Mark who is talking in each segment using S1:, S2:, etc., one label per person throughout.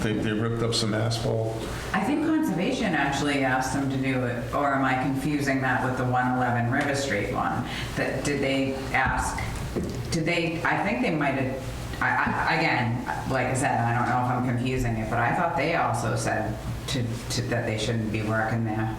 S1: They, they ripped up some asphalt.
S2: I think Conservation actually asked them to do it, or am I confusing that with the 111 River Street one? That, did they ask, did they, I think they might have, I, I, again, like I said, I don't know if I'm confusing it, but I thought they also said to, to, that they shouldn't be working there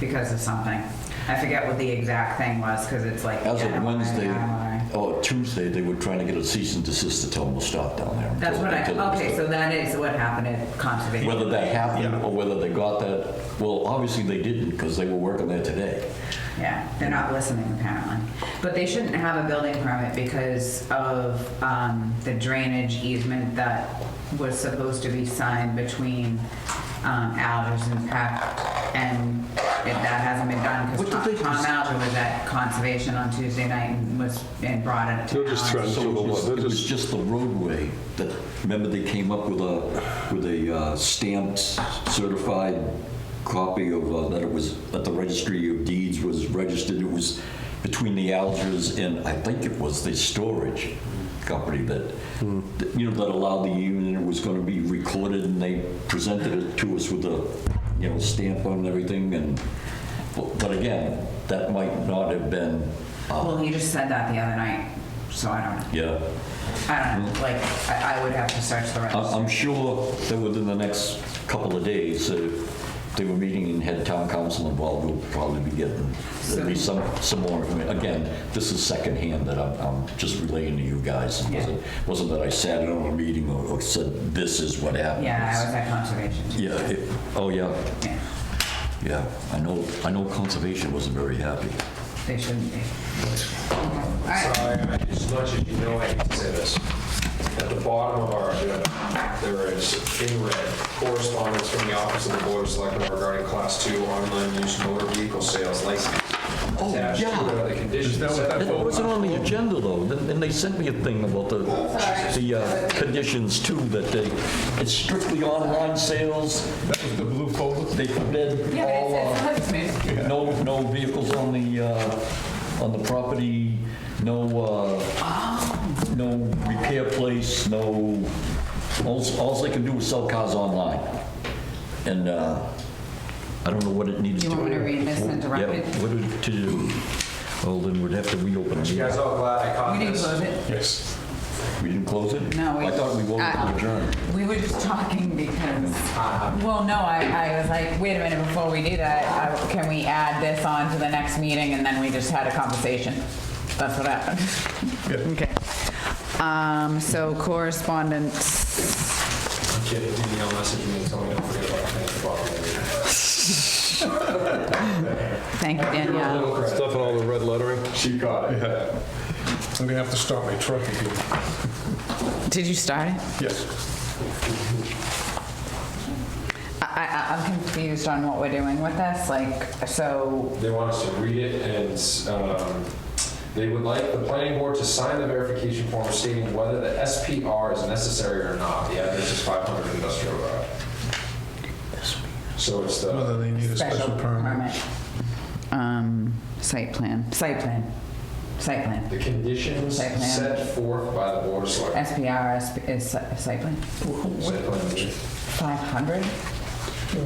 S2: because of something. I forget what the exact thing was, because it's like.
S3: As of
S2: animal rights,
S3: Wednesday,
S2: animal rights.
S3: or Tuesday, they were trying to get a cease and desist to tell them to stop down there.
S2: That's
S3: until-
S2: what I,
S3: until it was
S2: okay,
S3: done.
S2: so that is what happened at Conservation.
S3: Whether that happened
S1: Yeah.
S3: or whether they got that, well, obviously they didn't because they were working there today.
S2: Yeah, they're not listening apparently. But they shouldn't have a building permit because of um, the drainage easement that was supposed to be signed between um, Algers and Peck, and it- that hasn't been done
S3: What did
S2: because
S3: they
S2: Tom
S3: just-
S2: Alger was at Conservation on Tuesday night and was, and brought it to
S1: They'll just
S2: Algers.
S1: threaten-
S3: So it was,
S1: They're
S3: it was
S1: just-
S3: just the roadway that, remember they came up with a, with a uh, stamped certified copy of, uh, that it was, that the registry of deeds was registered, it was between the Algers and I think it was the storage company that, that, you know, that allowed the union, it was gonna be recorded and they presented it to us with a, you know, stamp on and everything and, but- but again, that might not have been, uh,
S2: Well, he just said that the other night, so I don't,
S3: yeah.
S2: I don't, know. like, I I would have to search the
S3: I-
S2: register.
S3: I'm sure that within the next couple of days, uh, if they were meeting and had town council involved, we'll probably be getting at least some, some more information. Again, this is secondhand that I'm, I'm just relaying to you guys. It wasn't, wasn't that I sat in on a meeting or or said, this is what happened.
S2: Yeah, I was at Conservation. too.
S3: Yeah, it- oh, yeah,
S2: Yeah,
S3: yeah. I know, I know conservation wasn't very happy.
S2: They shouldn't be. All right.
S4: Sorry, as much as you know, I hate to say this. At the bottom of our agenda, there is in red correspondence from the Office of the Board of Selectmen regarding Class 2 online use motor vehicle sales license.
S3: Oh,
S4: Attached to
S3: yeah.
S4: it are the conditions.
S1: Is that what that
S3: It
S1: vote?
S3: wasn't on the agenda, though, Then- then they sent me a thing about the, the uh, conditions too, that they, it's strictly online sales,
S1: That was the blue folder?
S3: they forbid
S2: Yeah,
S3: all, uh,
S2: but it's, it's,
S3: no, no vehicles on the, uh, on the property, no, uh, no repair place, no, alls, alls they can do is sell cars online. And, uh, I don't know what it needed to.
S2: You want me to read this and direct it?
S3: Yeah, what it to do, well, then we'd have to reopen it.
S4: You guys all glad I
S2: uh,
S4: caught
S2: we didn't
S4: this?
S2: close it.
S1: Yes.
S3: We didn't close it?
S2: No, we-
S3: I thought we voted to
S2: Uh,
S3: adjourn.
S2: We were just talking because, well, no, I, I was like, wait a minute, before we do that, I- can we add this on to the next meeting? And then we just had a conversation. That's what happened. Okay. Um, so correspondence.
S4: I'm kidding, do the email message me and tell me don't forget about it. Thank you, Bob.
S2: Thank you, Danielle.
S4: Little credit.
S5: Stuff in all the red lettering?
S4: She caught it.
S1: Yeah. I'm gonna have to start my truck again.
S2: Did you start it?
S1: Yes.
S2: I, I, I'm confused on what we're doing with this, like, so,
S4: They want us to read it and um, they would like the planning board to sign the verification form stating whether the SPR is necessary or not. The address is 500 Industrial Road. So it's the,
S1: Whether they need a
S2: special
S1: special permit.
S2: permit. Um, site plan, site plan, site plan.
S4: the conditions
S2: Site plan.
S4: set forth by the board of selectmen.
S2: SPR is- is si- site plan,
S4: Site plan review.
S2: 500?
S1: I'm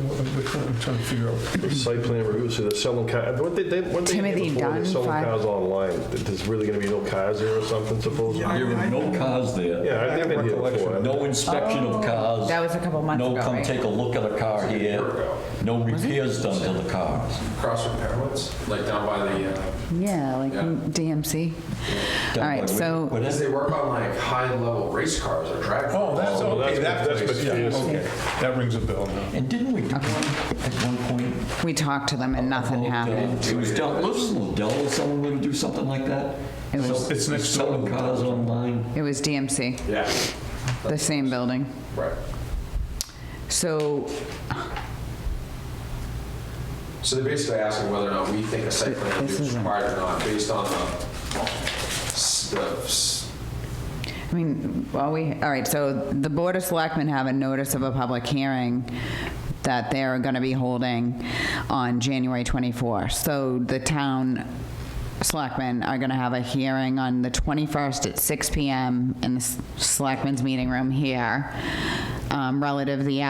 S1: trying to figure out.
S5: The Site plan review, so they're selling cars, what they, they, what they
S2: Timothy
S5: did before,
S2: Dunn,
S5: they're selling
S2: five-
S5: cars online. There's really gonna be no cars there or something supposedly?
S3: There
S5: Yeah,
S3: were no cars there,
S5: I think they did before.
S3: no inspection of cars.
S2: Oh, That was a couple months ago,
S3: No come
S2: right?
S3: take a look at a car here, no repairs done to the cars.
S4: Across from Pepperwoods, like down by the, uh,
S2: Yeah, like
S4: Yeah.
S2: DMC. All
S3: Done by
S2: right,
S3: with-
S2: so,
S3: what
S4: because
S3: is
S4: they
S3: it?
S4: work on like high-level race cars or drag.
S1: Oh, that's,
S5: Oh,
S1: okay, that
S5: that's- that's
S1: place, yeah,
S5: mysterious.
S1: okay. That rings a bell now.
S3: And didn't we do one at one point?
S2: we talked to them and nothing
S3: about, uh,
S2: happened.
S3: It was Dell, wasn't Dell or someone gonna do something like that?
S2: It was-
S3: Sell-
S1: It's next door.
S3: Selling cars online?
S2: It was DMC,
S4: Yeah,
S2: the same building.
S4: right.
S2: So,
S4: So they're basically asking whether or not we think a site plan
S2: This
S4: review is
S2: isn't-
S4: required or not, based on the, s- the s-
S2: I mean, well, we, all right, so the Board of Selectmen have a notice of a public hearing that they're going to be holding on January 24. So the town Selectmen are going to have a hearing on the 21st at 6 PM in the S- Selectmen's Meeting Room here um, relative to the